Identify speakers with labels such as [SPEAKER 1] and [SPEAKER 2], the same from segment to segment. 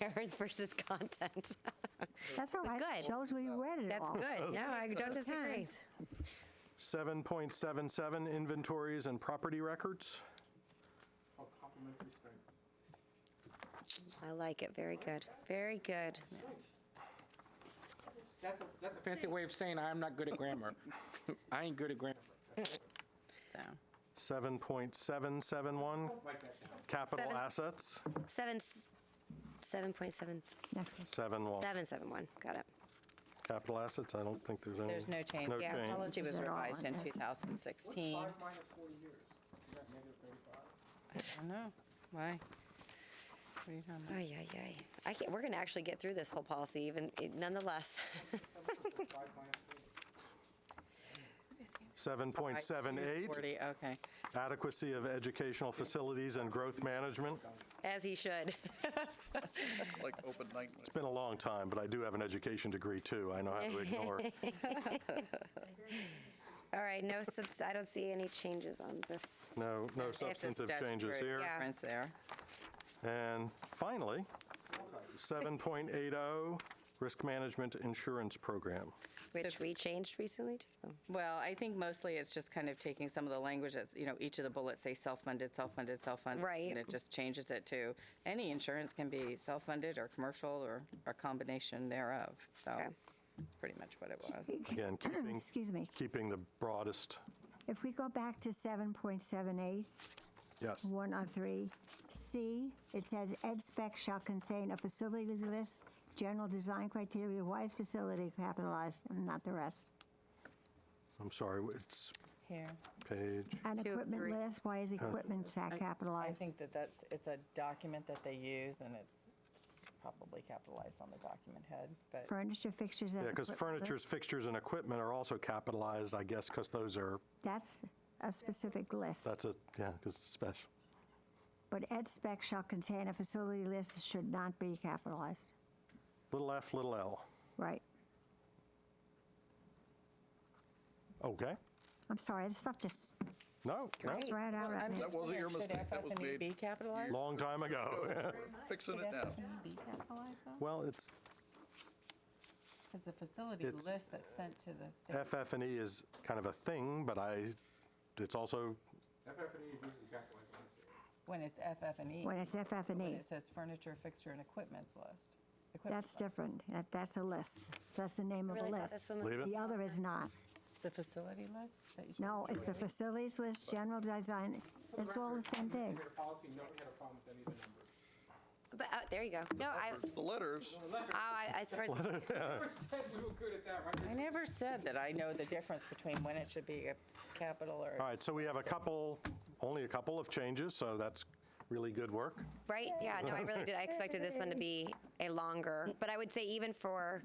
[SPEAKER 1] errors versus content.
[SPEAKER 2] That's all
[SPEAKER 1] But
[SPEAKER 2] right.
[SPEAKER 1] good.
[SPEAKER 2] Shows we read it
[SPEAKER 1] That's
[SPEAKER 2] all.
[SPEAKER 1] good. No, I don't disagree.
[SPEAKER 3] 7.77, inventories and property records.
[SPEAKER 1] I like it. Very good. Very good.
[SPEAKER 4] That's a, that's a fancy way of saying I'm not good at grammar. I ain't good at grammar.
[SPEAKER 1] So
[SPEAKER 3] 7.771, capital
[SPEAKER 1] Seven.
[SPEAKER 3] assets,
[SPEAKER 1] seven, s- seven point seven s-
[SPEAKER 3] 7.1.
[SPEAKER 1] seven seven one. Got it.
[SPEAKER 3] Capital assets, I don't think there's any.
[SPEAKER 5] There's no change.
[SPEAKER 3] No
[SPEAKER 5] The
[SPEAKER 3] change.
[SPEAKER 5] policy was
[SPEAKER 2] Is it all
[SPEAKER 5] revised in
[SPEAKER 2] in this?
[SPEAKER 5] 2016. I don't know. Why? What are you talking about?
[SPEAKER 1] Ay, ay, ay. I can't, we're going to actually get through this whole policy, even nonetheless.
[SPEAKER 3] 7.78,
[SPEAKER 5] 40, okay.
[SPEAKER 3] adequacy of educational facilities and growth management.
[SPEAKER 1] As he should.
[SPEAKER 6] like open night.
[SPEAKER 3] It's been a long time, but I do have an education degree, too. I know how to ignore.
[SPEAKER 1] All right, no subs, I don't see any changes on this.
[SPEAKER 3] No, no
[SPEAKER 5] It's just
[SPEAKER 3] substantive changes
[SPEAKER 5] statutory
[SPEAKER 3] here.
[SPEAKER 1] Yeah.
[SPEAKER 5] Difference there.
[SPEAKER 3] And finally, 7.80, oh, risk management insurance program.
[SPEAKER 1] Which we changed recently too.
[SPEAKER 5] Well, I think mostly it's just kind of taking some of the language that's, you know, each of the bullets say self-funded, self-funded, self-funded.
[SPEAKER 1] Right.
[SPEAKER 5] And it just changes it to, any insurance can be self-funded or commercial or a combination thereof. So
[SPEAKER 1] Okay.
[SPEAKER 5] that's pretty much what it was.
[SPEAKER 3] Again, keeping,
[SPEAKER 2] Excuse me.
[SPEAKER 3] keeping the broadest,
[SPEAKER 2] If we go back to 7.78,
[SPEAKER 3] yes.
[SPEAKER 2] one of three, C, it says ed spec shall contain a facility list, general design criteria, why is facility capitalized and not the rest?
[SPEAKER 3] I'm sorry, it's
[SPEAKER 5] Here.
[SPEAKER 3] page,
[SPEAKER 2] An
[SPEAKER 1] Two of
[SPEAKER 2] equipment
[SPEAKER 1] three.
[SPEAKER 2] list, why is equipment sac
[SPEAKER 5] I
[SPEAKER 2] capitalized?
[SPEAKER 5] think that that's, it's a document that they use and it's probably capitalized on the document head, but.
[SPEAKER 2] Furniture fixtures and.
[SPEAKER 3] yeah, because
[SPEAKER 2] equipment-
[SPEAKER 3] furnitures, fixtures, and equipment are also capitalized, I guess, because those are,
[SPEAKER 2] That's a specific list.
[SPEAKER 3] that's a, yeah, because it's special.
[SPEAKER 2] But ed spec shall contain a facility list that should not be capitalized.
[SPEAKER 3] Little f, little l.
[SPEAKER 2] Right.
[SPEAKER 3] Okay?
[SPEAKER 2] I'm sorry, this stuff just
[SPEAKER 3] No, no,
[SPEAKER 2] it's right out at
[SPEAKER 5] I'm
[SPEAKER 2] me.
[SPEAKER 5] just
[SPEAKER 6] That wasn't your
[SPEAKER 5] wondering, should
[SPEAKER 6] mistake. That was
[SPEAKER 5] FF&E
[SPEAKER 6] made
[SPEAKER 5] E be capitalized?
[SPEAKER 3] long time ago.
[SPEAKER 6] Fixing it now.
[SPEAKER 3] Well, it's,
[SPEAKER 5] Because the facility
[SPEAKER 3] It's-
[SPEAKER 5] list that's sent to the state.
[SPEAKER 3] FF and E is kind of a thing, but I, it's also,
[SPEAKER 5] When it's FF and E,
[SPEAKER 2] When it's FF and
[SPEAKER 5] when
[SPEAKER 2] E,
[SPEAKER 5] it says furniture, fixture, and equipments list. Equipment
[SPEAKER 2] that's
[SPEAKER 5] list.
[SPEAKER 2] different. That, that's a list. So that's the name of the
[SPEAKER 1] Really thought this
[SPEAKER 2] list.
[SPEAKER 1] one was-
[SPEAKER 3] leave it?
[SPEAKER 2] The other is not.
[SPEAKER 5] The facility list? that you said-
[SPEAKER 2] No, it's the facilities list, general design. It's all the same thing.
[SPEAKER 1] But, oh, there you go. No, I,
[SPEAKER 6] The letters.
[SPEAKER 1] oh, I, I suppose,
[SPEAKER 5] I never said that I know the difference between when it should be a capital or.
[SPEAKER 3] All right, so we have a couple, only a couple of changes, so that's really good work.
[SPEAKER 1] right? Yeah, no, I really did. I expected this one to be a longer, but I would say even for,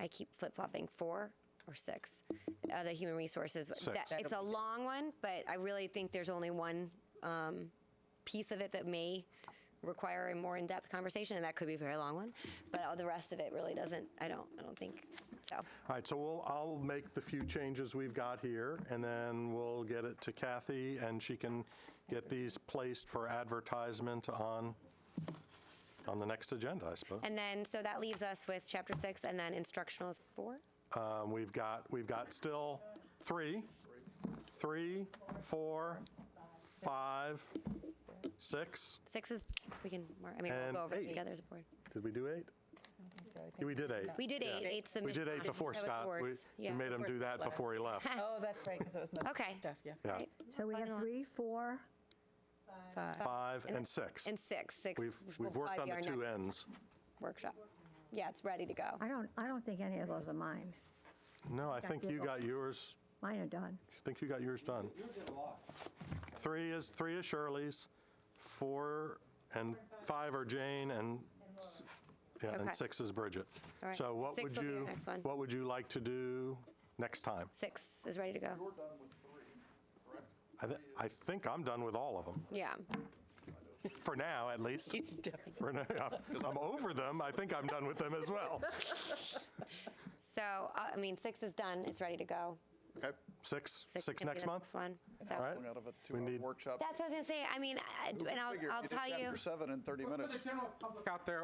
[SPEAKER 1] I keep flip flopping, four or six, uh, the human resources. that- It's a long one, but I really think there's only one um, piece of it that may require a more in depth conversation, and that could be a very long one. But all the rest of it really doesn't, I don't, I don't think so.
[SPEAKER 3] All right, so we'll, I'll make the few changes we've got here, and then we'll get it to Kathy, and she can get these placed for advertisement on, on the next agenda, I suppose.
[SPEAKER 1] And then, so that leaves us with chapter six, and then instructional is four.
[SPEAKER 3] Um, We've got, we've got still three, three, four, five, six.
[SPEAKER 1] Six is, we can, mark- I mean, we'll
[SPEAKER 3] And
[SPEAKER 1] go over it
[SPEAKER 3] eight.
[SPEAKER 1] together as a board.
[SPEAKER 3] Did we do eight?
[SPEAKER 5] so I think-
[SPEAKER 3] We did eight.
[SPEAKER 1] We did eight, eight's the.
[SPEAKER 3] We did eight
[SPEAKER 1] midpoint.
[SPEAKER 3] before
[SPEAKER 1] That was
[SPEAKER 3] Scott. We-
[SPEAKER 1] boards.
[SPEAKER 3] We
[SPEAKER 1] Yeah.
[SPEAKER 3] made him do that before he left.
[SPEAKER 5] Oh, that's right, because it was most of the
[SPEAKER 1] Okay.
[SPEAKER 5] stuff, yeah.
[SPEAKER 3] Yeah.
[SPEAKER 1] Right.
[SPEAKER 2] So we have three, four,
[SPEAKER 3] Five and six.
[SPEAKER 1] And six, six.
[SPEAKER 3] We've,
[SPEAKER 1] will
[SPEAKER 3] we've worked
[SPEAKER 1] probably
[SPEAKER 3] on
[SPEAKER 1] be
[SPEAKER 3] the
[SPEAKER 1] our
[SPEAKER 3] two
[SPEAKER 1] next
[SPEAKER 3] ends.
[SPEAKER 1] Workshop. Yeah, it's ready to go.
[SPEAKER 2] I don't, I don't think any of those are mine.
[SPEAKER 3] No, I
[SPEAKER 2] Got
[SPEAKER 3] think
[SPEAKER 2] the-
[SPEAKER 3] you got yours,
[SPEAKER 2] Mine are done.
[SPEAKER 3] I think you got yours done. Three is, three is Shirley's, four and five are Jane, and, s- yeah,
[SPEAKER 1] Okay.
[SPEAKER 3] and six is Bridget.
[SPEAKER 1] All right.
[SPEAKER 3] So what
[SPEAKER 1] Six
[SPEAKER 3] would
[SPEAKER 1] will be our
[SPEAKER 3] you,
[SPEAKER 1] next one.
[SPEAKER 3] what would you like to do next time?
[SPEAKER 1] Six is ready to go.
[SPEAKER 3] I, thi- I think I'm done with all of them,
[SPEAKER 1] Yeah.
[SPEAKER 3] for now, at least.
[SPEAKER 5] It's definitely-
[SPEAKER 3] For now, I'm over them, I think I'm done with them as well.
[SPEAKER 1] So, uh, I mean, six is done, it's ready to go.
[SPEAKER 6] Okay.
[SPEAKER 3] Six,
[SPEAKER 1] can
[SPEAKER 3] six
[SPEAKER 1] be
[SPEAKER 3] next
[SPEAKER 1] the
[SPEAKER 3] month?
[SPEAKER 1] one. So,
[SPEAKER 3] All right.
[SPEAKER 6] Going out of a
[SPEAKER 3] We
[SPEAKER 6] two-hour
[SPEAKER 3] need-
[SPEAKER 6] workshop.
[SPEAKER 1] that's what I was gonna say. I mean, I- and I'll,
[SPEAKER 6] Figure
[SPEAKER 1] I'll
[SPEAKER 6] you did
[SPEAKER 1] tell you.
[SPEAKER 6] Chapter seven in 30 minutes.
[SPEAKER 4] For the general public out there,